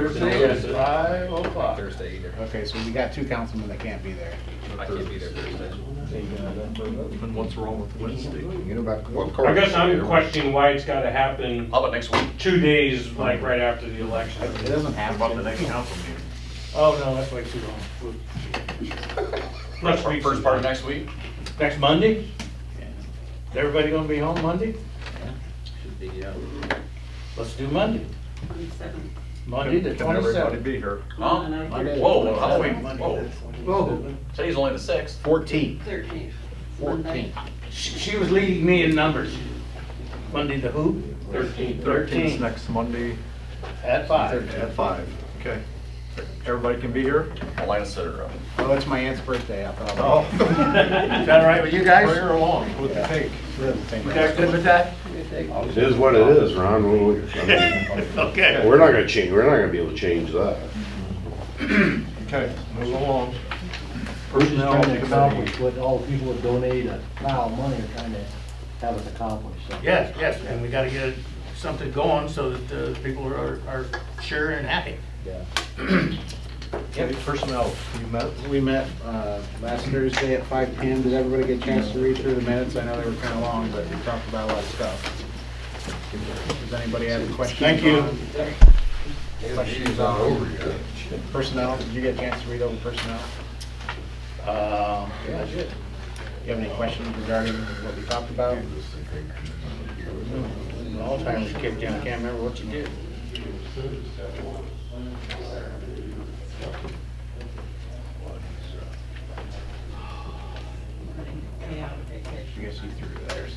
Thursday at five o'clock. Thursday either. Okay, so we got two councilmen that can't be there. I can't be there Thursday. And what's wrong with Wednesday? You know about. what I guess I'm Corey's- questioning why it's gotta happen How about next week? two days, like right after the election. It doesn't have About the to. next council meeting? Oh, no, that's way too long. Next week. First part of next week? Next Monday? Is everybody gonna be home Monday? Should be, yeah. Let's do Monday. Monday the Can everybody twenty-seventh. Oh, be here? Huh? Monday. Whoa, Halloween, Oh. whoa. Today's only the sixth. Fourteenth, Thirteenth. fourteenth. She was leading me in numbers. Monday the who? Thirteenth. Thirteenth, Thirteenth, next Monday at five. at five. Okay. Everybody can be here? Alana Center up. Oh, it's my aunt's birthday, I thought. Oh. Is that all right with you guys? Bring her along with the cake. You guys good with that? It is what it is, Ron. We- we- I mean, Okay. We're not gonna change, we're not gonna be able to change that. Okay, move along. We're Personnel trying to committee. accomplish what all the people that donate a pile of money are trying to have us accomplish, so. Yes, yes, and we gotta get something going so that uh, people are, are sure and happy. Yeah. Okay, Personnel, you met? We met uh, last Thursday at five P M. Did everybody get a chance to read through the minutes? I know they were kind of long, but we talked about a lot of stuff. Does anybody have any questions? Thank you. Questions on personnel? Did you get a chance to read over personnel? Uh, Yeah, I did. You have any questions regarding what we talked about? all time we kicked down, can't remember what you did. Yeah, vacation. I guess you threw it there.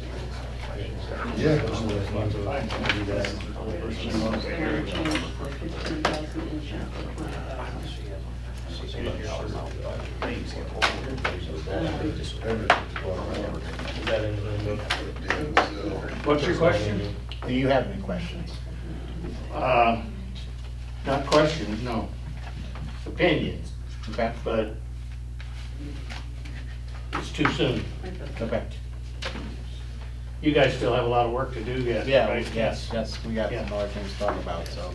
Sarah changed the fifteen thousand insurance to twenty thousand. What's your question? so. Do you have any questions? Uh, Not questions, no. Opinions, Okay, but it's too soon. okay. You guys still have a lot of work to do yet, Yeah, right? we- yes, yes, we got Yeah. some other things to talk about, so.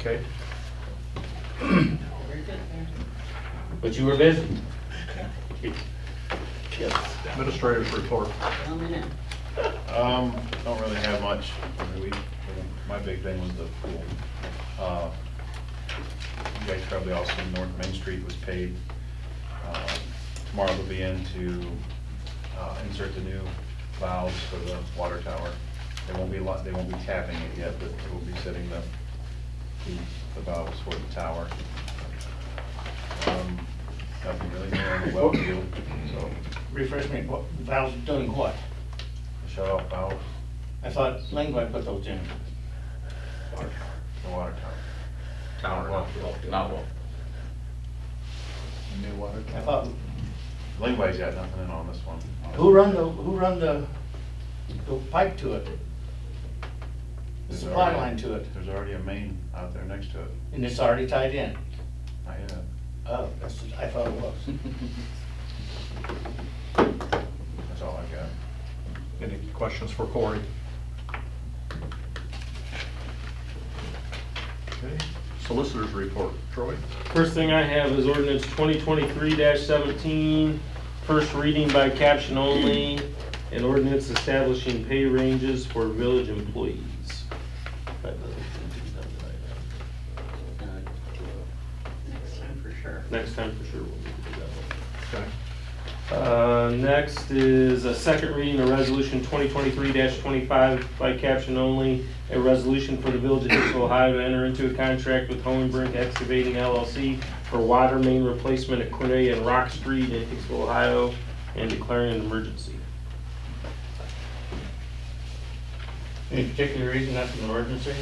Okay. Very good there. But you were busy. Administrator's report. Well, I know. Um, don't really have much. I mean, we, my big thing was the pool. Uh, You guys probably all seen North Main Street was paid. Uh, Tomorrow they'll be in to uh, insert the new valves for the water tower. They won't be, lo- they won't be tapping it yet, but we'll be setting the, the- the valves for the tower. Um, Nothing really new on the well field, so Refresh me, what, Val's doing what? shut off valves, I thought Langway put those in. the water tower. Tower, not not well. New water. I thought, Langway's got nothing in on this one. who run the, who run the, the pipe to it? The There's supply already- line to it, There's already a main out there next to it. and it's already tied in? Not yet. Oh, that's, I thought it was. That's all I got. Any questions for Corey? Okay. Solicitors report. Troy? First thing I have is ordinance 2023-17, first reading by caption only, an ordinance establishing pay ranges for village employees. Next time for sure. Next time for sure we'll need to do that Okay. one. Uh, Next is a second reading of resolution 2023-25 by caption only, a resolution for the village of Dixon, Ohio to enter into a contract with Hohenbrink Excavating LLC for water main replacement at Cornelia and Rock Street in Dixon, Ohio, and declaring an emergency. Any particular reason that's an emergency?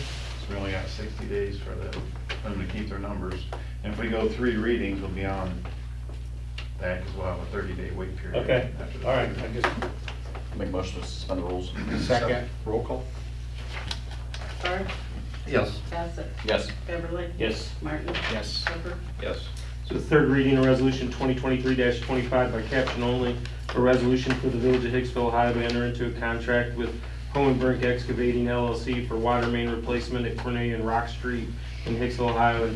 So we only got sixty days for the, for them to keep their numbers. And if we go three readings, we'll be on that, because we'll have a thirty-day wait period. Okay, after the- all right, I just, Make a motion to suspend the rules. Second, Roll call? Barth, Yes. Bassett, Yes. Beverly, yes. Martin, yes. Hooker. Yes. So third reading of resolution 2023-25 by caption only, a resolution for the village of Hicksville, Ohio to enter into a contract with Hohenbrink Excavating LLC for water main replacement at Cornelia and Rock Street in Hicksville, Ohio,